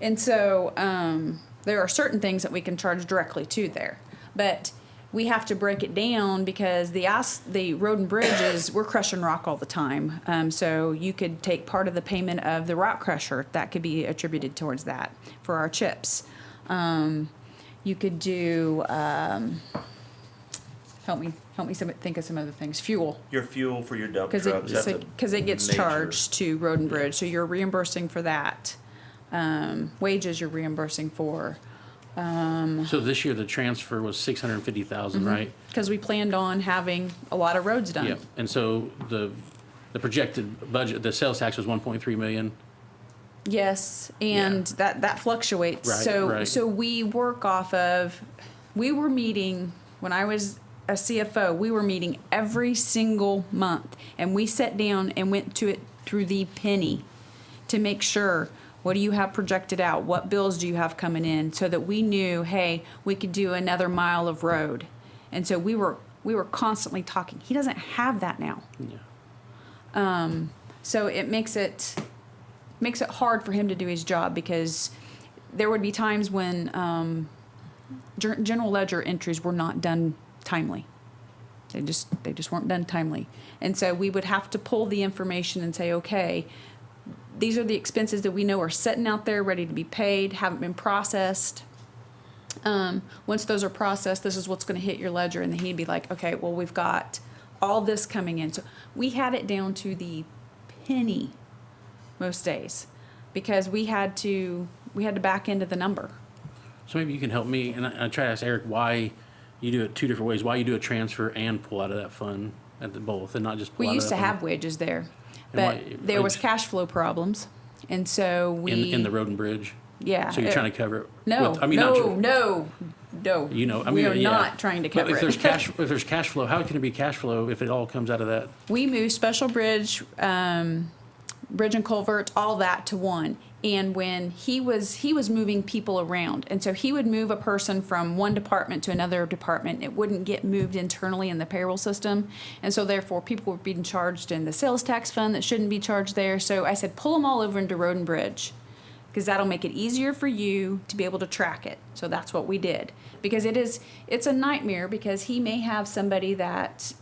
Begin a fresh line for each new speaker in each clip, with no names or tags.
And so um, there are certain things that we can charge directly to there, but we have to break it down because the ice, the road and bridges, we're crushing rock all the time. Um, so you could take part of the payment of the rock crusher that could be attributed towards that for our chips. Um, you could do um, help me help me some, think of some other things. Fuel.
Your fuel for your dump
Because
trucks. that's a
it, because it gets
major-
charged to road and bridge, so you're reimbursing for that. Um, wages you're reimbursing for,
So this year, the transfer was six hundred and fifty thousand,
Mm-hmm.
right?
because we planned on having a lot of roads
Yeah,
done.
and so the, the projected budget, the sales tax was one point three million.
Yes, and that, that fluctuates.
Right,
So,
right.
so we work off of, we were meeting, when I was a CFO, we were meeting every single month. And we sat down and went to it through the penny to make sure, what do you have projected out? What bills do you have coming in? So that we knew, hey, we could do another mile of road. And so we were, we were constantly talking. He doesn't have that now.
Yeah.
So it makes it makes it hard for him to do his job because there would be times when um, ger- general ledger entries were not done timely. They just they just weren't done timely, and so we would have to pull the information and say, okay, these are the expenses that we know are sitting out there ready to be paid, haven't been processed. Um, once those are processed, this is what's going to hit your ledger, and then he'd be like, okay, well we've got all this coming in, so we had it down to the penny most days because we had to we had to back into the number
So maybe you can help me, and I, I try to ask Eric why you do it two different ways, why you do a transfer and pull out of that fund at the both, and not just pull
we
out of
used to
that
have
fund
wages there but
why-
there was
wage-
cash flow problems and so we
In, in the road and bridge?
yeah
So you're
it-
trying to cover it?
no
with- I mean, not
no
tr-
no no
You know, I
we
mean,
are
yeah.
not trying to
But
cover
if there's
it
cash, if there's cash flow, how can it be cash flow if it all comes out of that?
we moved special bridge um, bridge and culvert all that to one and when he was he was moving people around and so he would move a person from one department to another department it wouldn't get moved internally in the payroll system and so therefore people were being charged in the sales tax fund that shouldn't be charged there so i said pull them all over into road and bridge because that'll make it easier for you to be able to track it. So that's what we did because it is it's a nightmare because he may have somebody that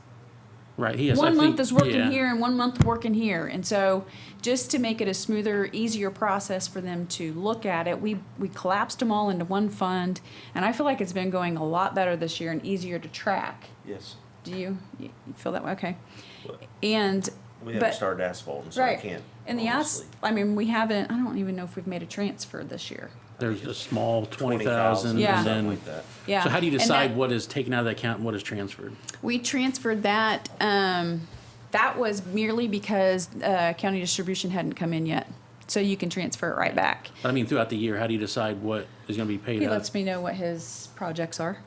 Right, he has. I
one month
think-
is working
yeah.
here and one month working here. And so just to make it a smoother, easier process for them to look at it, we we collapsed them all into one fund and I feel like it's been going a lot better this year and easier to track.
Yes.
Do you, you feel that way? Okay. And
We haven't
but-
started asphalt, and so I
right.
can't.
and the ass,
honestly.
I mean, we haven't, I don't even know if we've made a transfer this year.
There's a small twenty
20,000,
thousand,
Yeah.
and
Something
then.
like that.
Yeah.
So how do you
And
decide
that-
what is taken out of the account and what is transferred?
We transferred that, um, that was merely because, uh, county distribution hadn't come in yet. So you can transfer it right back.
I mean, throughout the year, how do you decide what is gonna be paid
He
out?
lets me know what his projects are.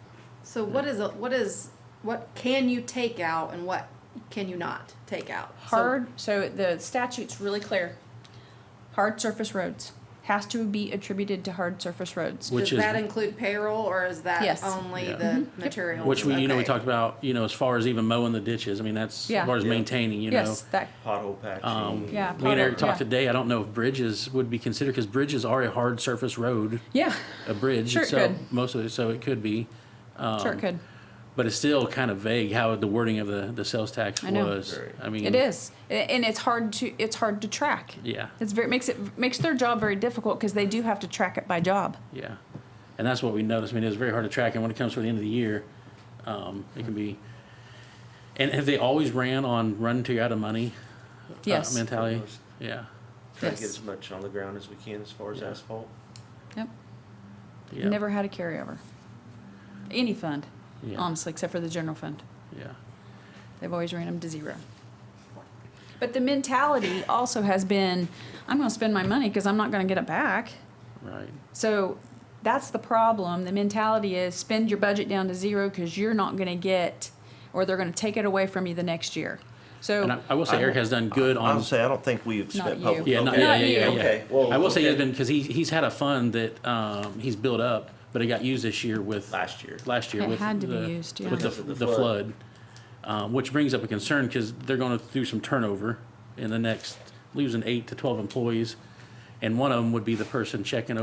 So what is a, what is what can you take out and what can you not take out? So-
Hard, so the statute's really clear. Hard surface roads, has to be attributed to hard surface roads.
Which
does
is-
that include payroll or is that
Yes. Mm-hmm.
only
Yeah.
the material?
Which we, you know, we talked about, you know, as far as even mowing the ditches, I mean, that's,
Yeah.
as far as
Yeah.
maintaining, you know.
Yes, that,
Pothole patching.
Um,
Yeah,
Me and Eric
pothole,
talked
yeah.
today, I don't know if bridges would be considered, because bridges are a hard surface road,
yeah,
a bridge
Sure it
itself,
could.
most of it, so it could be. Um,
sure it could.
But it's still kind of vague how the wording of the, the sales tax
I know.
was.
Very.
I mean.
It is, A- and it's hard to, it's hard to track.
Yeah,
It's very, makes it, makes their job very difficult because they do have to track it by job.
yeah. And that's what we noticed. I mean, it's very hard to track, and when it comes to the end of the year, um, it can be. And have they always ran on run till you're out of money? uh,
Yes.
Mentality? Yeah,
Try to get
Yes.
as much on the ground as we can as far as
Yeah.
asphalt.
Yep.
yeah.
Never had a carryover. Any fund,
Yeah.
honestly, except for the general fund.
Yeah.
They've always ran them to zero. But the mentality also has been, I'm going to spend my money because I'm not going to get it back.
Right.
So that's the problem. The mentality is spend your budget down to zero because you're not going to get, or they're going to take it away from you the next year.
And I,
So,
I will say Eric has done good on.
I'll say I don't think we've
Not
spent
you.
public.
Um, Yeah, not,
okay.
yeah, yeah,
Not
yeah,
you.
yeah.
Okay, well,
I will say he's
okay.
been because he he's had a fund that um, he's built up, but it got used this year with
Last year.
Last year
It
with
had to be
the,
used, yeah.
with the,
Because of the
the flood, um, which brings up a concern because they're going to do some turnover in the next losing eight to twelve employees, and one of them would be the person checking